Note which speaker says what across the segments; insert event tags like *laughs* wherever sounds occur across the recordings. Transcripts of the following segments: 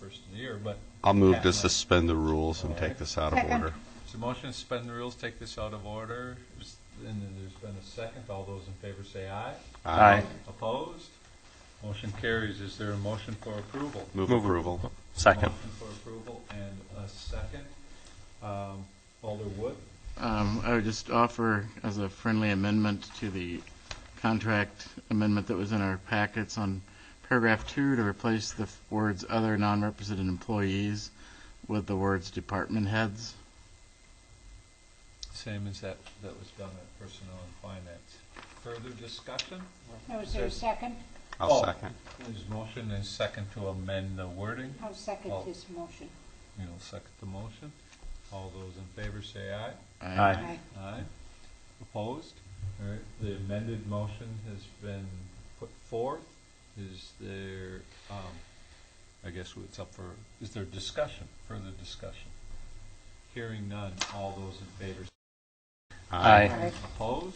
Speaker 1: first of the year, but
Speaker 2: I'll move
Speaker 1: Yeah.
Speaker 2: to suspend the rules and take this out of
Speaker 3: Second.
Speaker 2: order.
Speaker 1: it's a motion to suspend the rules, take this out of order. Just- And then there's been a second. All those in favor say aye.
Speaker 2: Aye.
Speaker 1: Opposed? Motion carries. Is there a motion for approval?
Speaker 2: Move approval.
Speaker 4: Second.
Speaker 1: Motion for approval and a second. Um, Alder Wood,
Speaker 5: Um, I would just offer as a friendly amendment to the contract amendment that was in our packets on paragraph two to replace the f- words other non-represented employees with the words department heads.
Speaker 1: same as that, that was done at Personnel and Finance. Further discussion?
Speaker 3: No, is there a second?
Speaker 2: I'll
Speaker 1: Oh.
Speaker 2: second.
Speaker 1: There's motion and second to amend the wording.
Speaker 3: I'll second
Speaker 1: Oh.
Speaker 3: this motion.
Speaker 1: You'll second the motion. All those in favor say aye.
Speaker 5: I-
Speaker 4: Aye.
Speaker 3: Aye.
Speaker 1: Aye. Opposed? All right, the amended motion has been put forth. Is there, um, I guess it's up for, is there discussion, further discussion? Hearing none, all those in favor
Speaker 4: Aye.
Speaker 3: Aye.
Speaker 1: Opposed?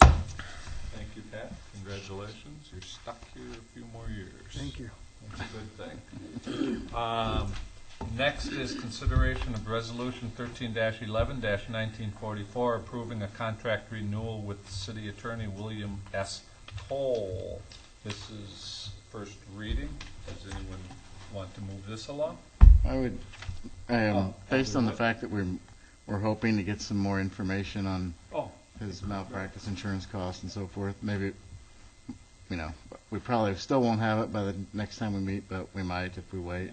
Speaker 1: Thank you, Pat. Congratulations. You're stuck here a few more years. Thank you. That's a good thing. Um, Next is consideration of Resolution thirteen eleven nineteen forty-four, approving a contract renewal with City Attorney William S. Toll. This is first reading. Does anyone want to move this along?
Speaker 5: I would, um,
Speaker 1: Oh,
Speaker 5: based on the
Speaker 1: absolutely.
Speaker 5: fact that we're, we're hoping to get some more information on
Speaker 1: Oh,
Speaker 5: his malpractice insurance costs and so forth, maybe, you know, we probably still won't have it by the next time we meet, but we might if we wait.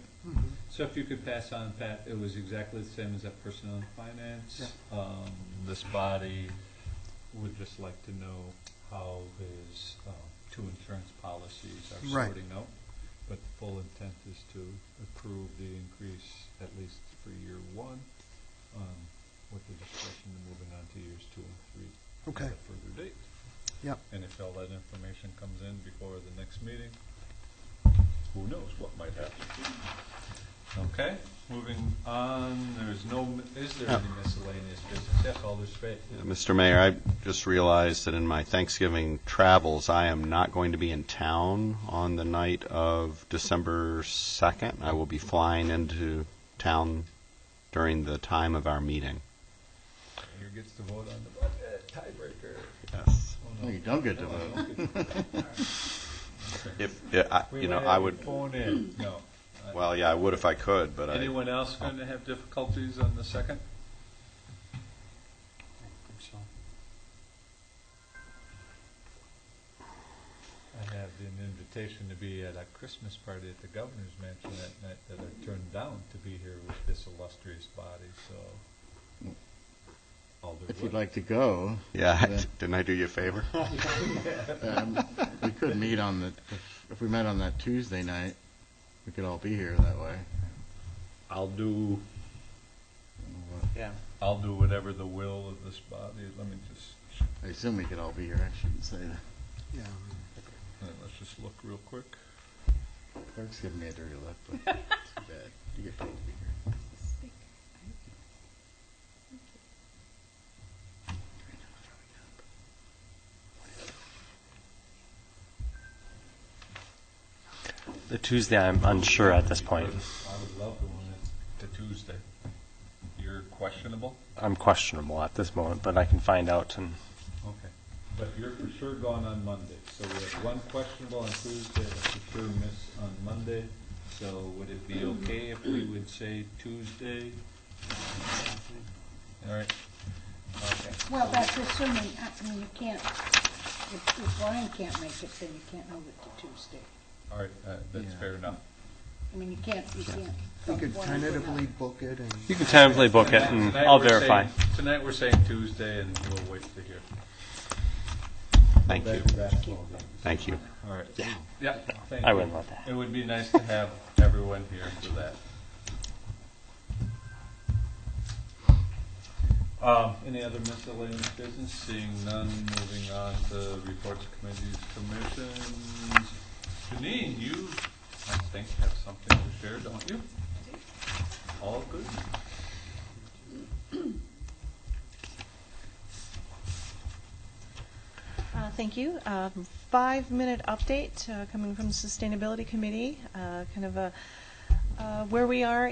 Speaker 1: So if you could pass on, Pat, it was exactly the same as that personnel and finance. Um, This body would just like to know how his um, two insurance policies are
Speaker 6: Right.
Speaker 1: sorting out. But the full intent is to approve the increase, at least for year one, um, with the discretion of moving on to years two and three.
Speaker 6: Okay.
Speaker 1: At a further date.
Speaker 6: Yep.
Speaker 1: And if all that information comes in before the next meeting, who knows what might happen. Okay, moving on, there's no, is there any miscellaneous business? Yes, Alder Spade.
Speaker 2: Uh, Mr. Mayor, I just realized that in my Thanksgiving travels, I am not going to be in town on the night of December 2nd. I will be flying into town during the time of our meeting.
Speaker 1: Here gets to vote on the budget, tiebreaker.
Speaker 2: Yes.
Speaker 1: Oh,
Speaker 5: No, you don't get to
Speaker 1: No, I
Speaker 5: vote.
Speaker 1: don't get to vote.
Speaker 5: *laughs*
Speaker 2: If, yeah, I-
Speaker 1: We
Speaker 2: you know,
Speaker 1: might
Speaker 2: I
Speaker 1: have
Speaker 2: would,
Speaker 1: to Phone in, no. I-
Speaker 2: well, yeah, I would if I could, but I,
Speaker 1: Anyone else going to have difficulties on the second? I have an invitation to be at a Christmas party at the governor's mansion that night that I turned down to be here with this illustrious body, so. Alder
Speaker 5: If
Speaker 1: Wood.
Speaker 5: you'd like to go,
Speaker 2: yeah, *laughs* didn't I do you
Speaker 1: *laughs*
Speaker 2: a favor?
Speaker 5: um, we could meet on the, if- if we met on that Tuesday night, we could all be here that way.
Speaker 1: I'll do,
Speaker 4: Yeah.
Speaker 1: I'll do whatever the will of this body, let me just,
Speaker 5: I assume we could all be here, I shouldn't say that.
Speaker 6: Yeah,
Speaker 1: let's just look real quick.
Speaker 5: Clerk's giving me a dirty look, but it's too bad. You get paid to be here.
Speaker 4: The Tuesday, I'm unsure at this point.
Speaker 1: I would love the one at the Tuesday. You're questionable?
Speaker 4: I'm questionable at this moment, but I can find out and
Speaker 1: Okay. But you're for sure gone on Monday, so we have one questionable on Tuesday, and for sure miss on Monday. So would it be okay if we would say Tuesday? All right. Okay.
Speaker 3: Well, that's assuming, I mean, you can't, if if Ryan can't make it, then you can't move it to Tuesday.
Speaker 1: All right, uh, that's
Speaker 5: Yeah.
Speaker 1: fair enough.
Speaker 3: I mean, you can't, you can't.
Speaker 6: we could
Speaker 3: one uh, or another.
Speaker 6: tentatively book it and.
Speaker 4: you can tentatively book it and
Speaker 1: Tonight
Speaker 4: Mm, I'll
Speaker 1: we're saying-
Speaker 4: verify.
Speaker 1: Tonight, we're saying Tuesday, and we'll wait to hear.
Speaker 2: Thank you,
Speaker 1: Basketball game.
Speaker 2: thank you.
Speaker 1: All right. Yeah. Yeah, thank
Speaker 4: I
Speaker 1: you.
Speaker 4: wouldn't let that.
Speaker 1: It would be nice to have *laughs* everyone here for that. Um, Any other miscellaneous business? Seeing none, moving on to reports, committees, commissions. Janine, you, I think, have something to share, don't you? All good?
Speaker 7: Uh, Thank you. Um, Five-minute update uh, coming from the Sustainability Committee, uh, kind of a uh, where we are